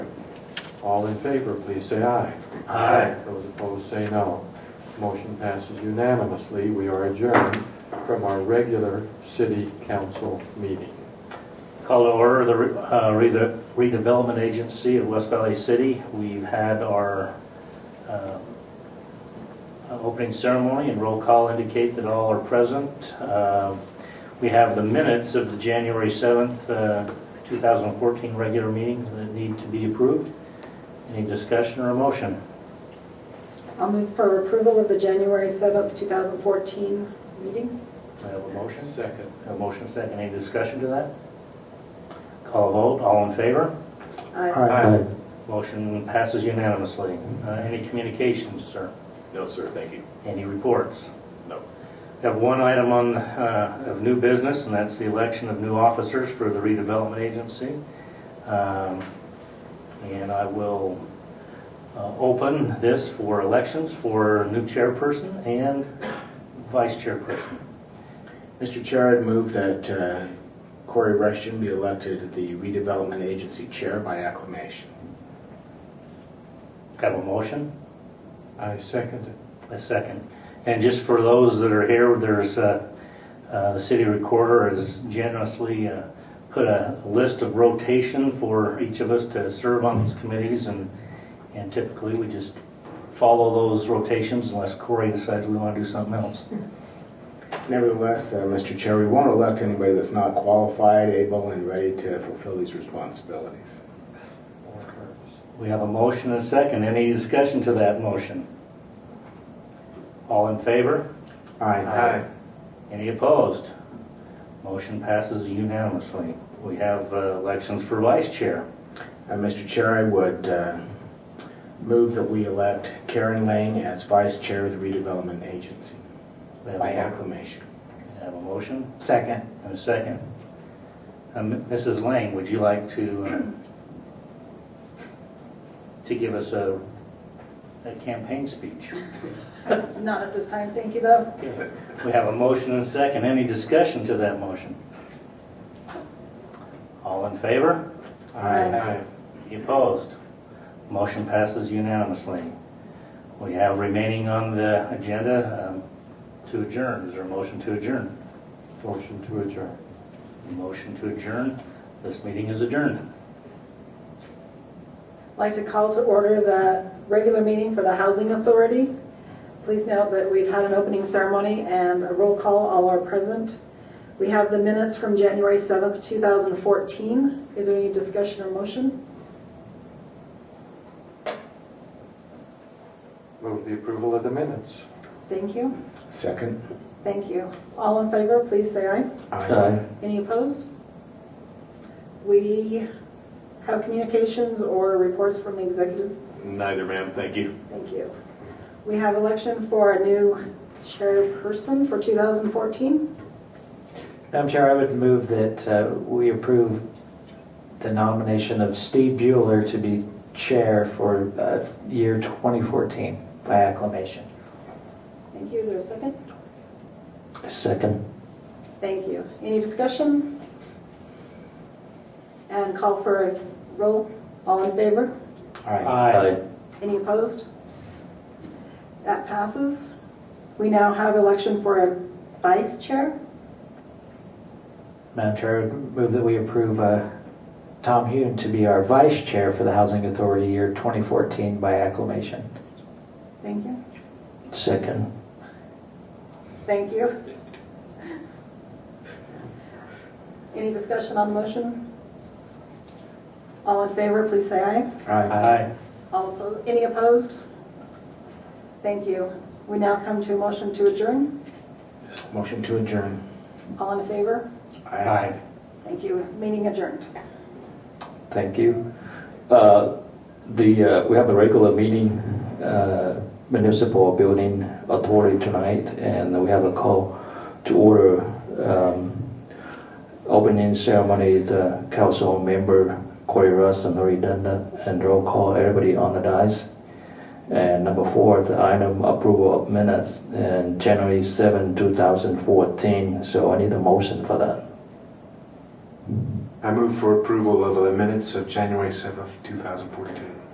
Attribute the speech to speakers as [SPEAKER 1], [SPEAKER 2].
[SPEAKER 1] All in favor, please say aye.
[SPEAKER 2] Aye.
[SPEAKER 1] Those opposed, say no. Motion passes unanimously. We are adjourned from our regular city council meeting.
[SPEAKER 2] Call to order the re- uh, rede- redevelopment agency of West Valley City. We've had our um, uh, opening ceremony and roll call indicate that all are present. Um, We have the minutes of the January 7th, uh, 2014 regular meeting that need to be approved. Any discussion or motion?
[SPEAKER 3] I'll move for approval of the January 7th, 2014 meeting.
[SPEAKER 2] I have a motion.
[SPEAKER 1] Second.
[SPEAKER 2] A motion second. Any discussion to that? Call vote, all in favor?
[SPEAKER 3] Aye.
[SPEAKER 1] Aye.
[SPEAKER 2] Motion passes unanimously. Uh, Any communications, sir?
[SPEAKER 4] No, sir, thank you.
[SPEAKER 2] Any reports?
[SPEAKER 4] No.
[SPEAKER 2] We Have one item on, uh, of new business, and that's the election of new officers for the redevelopment agency. Um, And I will uh, open this for elections for new chairperson and vice chairperson.
[SPEAKER 5] Mr. Chair, I'd move that uh, Corey Rushton be elected the redevelopment agency chair by acclamation.
[SPEAKER 2] Have a motion?
[SPEAKER 1] I second it.
[SPEAKER 2] A second. And just for those that are here, there's, uh, uh, the city recorder has generously uh, put a list of rotation for each of us to serve on these committees, and and typically, we just follow those rotations unless Corey decides we want to do something else.
[SPEAKER 5] Nevertheless, uh, Mr. Chair, we won't elect anybody that's not qualified, able, and ready to fulfill these responsibilities.
[SPEAKER 2] We have a motion and a second. Any discussion to that motion? All in favor? Aye. Any opposed? Motion passes unanimously. We have uh, elections for vice chair.
[SPEAKER 5] Uh, Mr. Chair, I would uh, move that we elect Karen Lang as vice chair of the redevelopment agency
[SPEAKER 2] We have a-
[SPEAKER 5] by acclamation.
[SPEAKER 2] Have a motion
[SPEAKER 5] Second.
[SPEAKER 2] and a second. Um, Mrs. Lang, would you like to, uh, to give us a, a campaign speech?
[SPEAKER 3] Not at this time, thank you, though.
[SPEAKER 2] We have a motion and a second. Any discussion to that motion? All in favor?
[SPEAKER 1] Aye.
[SPEAKER 2] Any opposed? Motion passes unanimously. We have remaining on the agenda um, to adjourn. Is there a motion to adjourn?
[SPEAKER 1] Motion to adjourn.
[SPEAKER 2] A Motion to adjourn. This meeting is adjourned.
[SPEAKER 3] I'd like to call to order the regular meeting for the Housing Authority. Please note that we've had an opening ceremony and a roll call, all are present. We have the minutes from January 7th, 2014. Is there any discussion or motion?
[SPEAKER 1] Move the approval of the minutes.
[SPEAKER 3] Thank you,
[SPEAKER 5] Second.
[SPEAKER 3] thank you. All in favor, please say aye.
[SPEAKER 1] Aye.
[SPEAKER 3] Any opposed? We have communications or reports from the executive.
[SPEAKER 4] Neither, ma'am, thank you.
[SPEAKER 3] Thank you. We have election for a new chairperson for 2014.
[SPEAKER 6] Madam Chair, I would move that uh, we approve the nomination of Steve Bueller to be chair for uh, year 2014 by acclamation.
[SPEAKER 3] Thank you. Is there a second?
[SPEAKER 6] Second.
[SPEAKER 3] Thank you. Any discussion? And call for a roll. All in favor?
[SPEAKER 5] Aye.
[SPEAKER 2] Aye.
[SPEAKER 3] Any opposed? That passes. We now have election for a vice chair.
[SPEAKER 6] Madam Chair, I would move that we approve uh, Tom Hune to be our vice chair for the Housing Authority year 2014 by acclamation.
[SPEAKER 3] Thank you.
[SPEAKER 6] Second.
[SPEAKER 3] Thank you. Any discussion on the motion? All in favor, please say aye.
[SPEAKER 5] Aye.
[SPEAKER 2] Aye.
[SPEAKER 3] All opposed, any opposed? Thank you. We now come to a motion to adjourn.
[SPEAKER 5] Motion to adjourn.
[SPEAKER 3] All in favor?
[SPEAKER 2] Aye.
[SPEAKER 3] Thank you. Meeting adjourned.
[SPEAKER 7] Thank you. Uh, The, uh, we have a regular meeting, uh, municipal building authority tonight, and we have a call to order um, opening ceremony, the council member Corey Russ and Lori Dunda, and roll call everybody on the dais. And number four, the item approval of minutes, and January 7, 2014, so I need a motion for that.
[SPEAKER 8] I move for approval of the minutes of January 7th, 2014.